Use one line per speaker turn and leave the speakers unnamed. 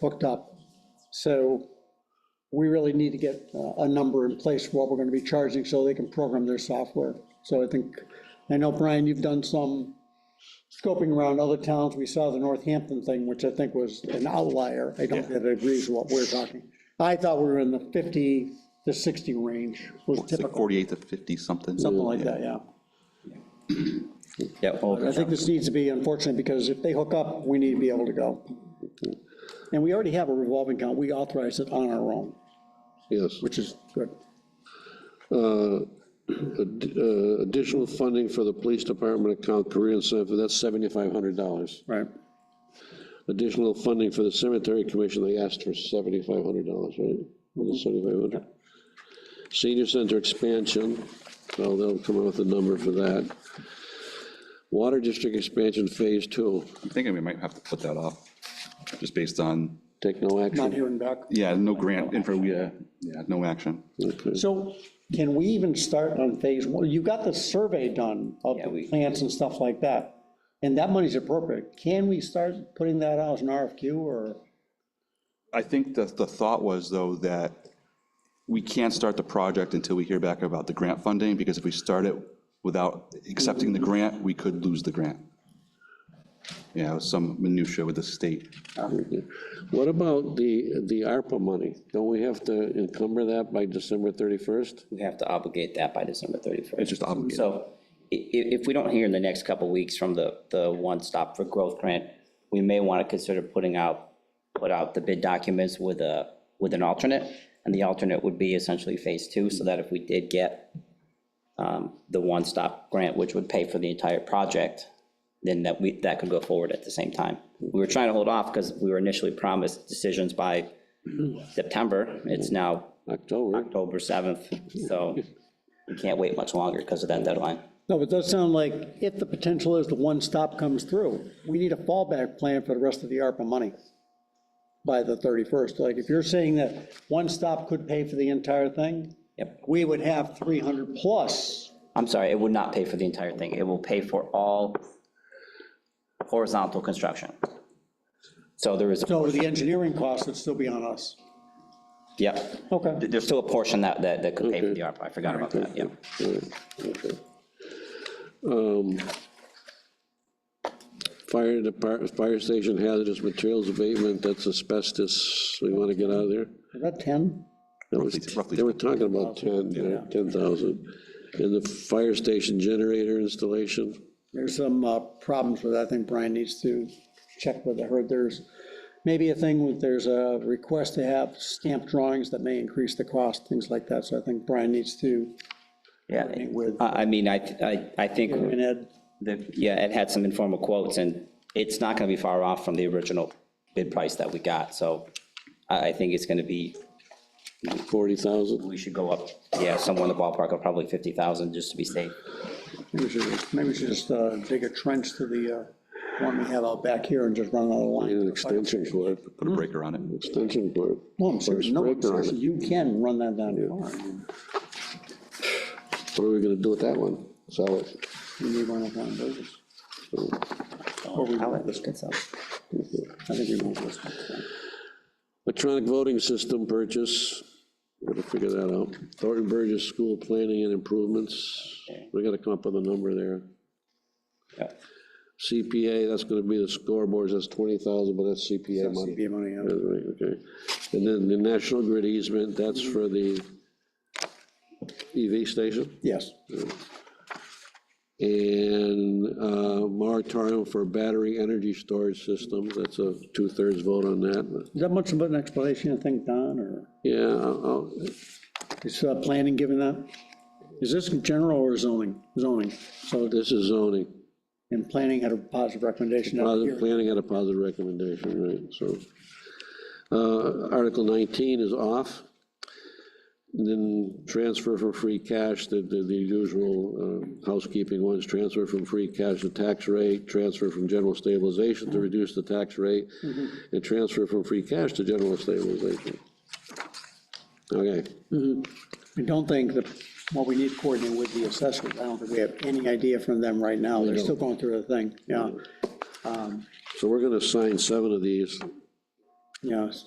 hooked up. So we really need to get uh, a number in place for what we're gonna be charging so they can program their software. So I think, I know, Brian, you've done some scoping around other towns. We saw the Northampton thing, which I think was an outlier. I don't think it agrees with what we're talking. I thought we were in the 50 to 60 range was
It's like
typical,
48 to 50 something.
something like that, yeah.
Yeah,
I think this needs to be unfortunate, because if they hook up, we need to be able to go. And we already have a revolving account, we authorize it on our own,
Yes.
which is good.
Ad- uh, Additional funding for the police department account career incentive, that's seventy-five hundred dollars.
Right.
Additional funding for the cemetery commission, they asked for seventy-five hundred dollars, right? Seventy-five hundred. Senior center expansion, well, they'll come up with a number for that. Water district expansion phase two,
I'm thinking we might have to put that off, just based on,
take no
Not
action.
hearing back.
yeah, no grant info, yeah, yeah, no action.
Okay.
So can we even start on phase one? You got the survey done of
Yeah,
the
we-
plants and stuff like that, and that money's appropriate. Can we start putting that out as an RFQ, or,
I think the, the thought was, though, that we can't start the project until we hear back about the grant funding, because if we start it without accepting the grant, we could lose the grant. Yeah, it was some minutia with the state.
What about the, the ARPA money? Don't we have to encumber that by December thirty-first?
we have to obligate that by December 31st.
It's just obligated.
So i- i- if we don't hear in the next couple weeks from the, the One Stop for Growth grant, we may want to consider putting out, put out the bid documents with a, with an alternate. And the alternate would be essentially phase two, so that if we did get um, the One Stop grant, which would pay for the entire project, then that we, that could go forward at the same time. We were trying to hold off because we were initially promised decisions by September. It's now
October?
October 7th, so we can't wait much longer because of that deadline.
no, but it does sound like if the potential is the one stop comes through, we need a fallback plan for the rest of the ARPA money by the 31st. Like, if you're saying that one stop could pay for the entire thing,
Yep.
we would have 300 plus,
I'm sorry, it would not pay for the entire thing. It will pay for all horizontal construction. So there is,
so the engineering costs would still be on us.
yep,
Okay.
There- there's still a portion that, that that could pay for the ARPA. I forgot about that, yeah.
Um, Fire department, fire station hazardous materials abatement, that's asbestos, we want to get out of there.
Is that 10?
That was-
Roughly- roughly
They were talking about 10, yeah, 10,000. And the fire station generator installation,
There's some uh, problems with, that. I think Brian needs to check with, I heard there's maybe a thing with, there's a request to have stamped drawings that may increase the cost, things like that, so I think Brian needs to,
Yeah,
with-
I, I mean, I, I, I think
and Ed,
that, yeah, it had some informal quotes and it's not going to be far off from the original bid price that we got. So I, I think it's going to be
40,000.
we should go up, yeah, somewhere in the ballpark of probably 50,000, just to be safe.
maybe we should, maybe we should just uh, dig a trench to the uh, one we have out back here and just run another
Need
line.
an extension cord,
Put a
Hmm.
breaker on it.
extension cord.
No, I'm serious, no, I'm
Breaker on
serious,
it.
you can run that down far,
What are we going to do with that one? Sell it?
you need one of one of those. Or we want this one. I think we want this one.
Electronic voting system purchase, gotta figure that out. Thornton Burgess School Planning and Improvements, we gotta come up with a number there.
Yeah.
CPA, that's gonna be the scoreboards, that's twenty thousand, but that's CPA money.
CPA money, yeah.
That's right, okay. And then the National Grid easement, that's for the EV station.
Yes,
And uh, moratorium for battery energy storage systems, that's a two-thirds vote on that.
is that much of an explanation, I think, Don, or?
Yeah, uh, I'll, I'll-
Is uh, planning given that? Is this general or zoning? Zoning. So,
this is zoning.
and planning had a positive recommendation out
Positive,
here.
planning had a positive recommendation, right, so. uh, Article 19 is off. And Then transfer from free cash, the, the the usual uh, housekeeping ones, transfer from free cash to tax rate, transfer from general stabilization to reduce the tax rate, and transfer from free cash to general stabilization. Okay,
I don't think that, what we need to coordinate with the assessors, I don't think we have any idea from them right now. They're still going through the thing, yeah.
so we're gonna sign seven of these,
Yes.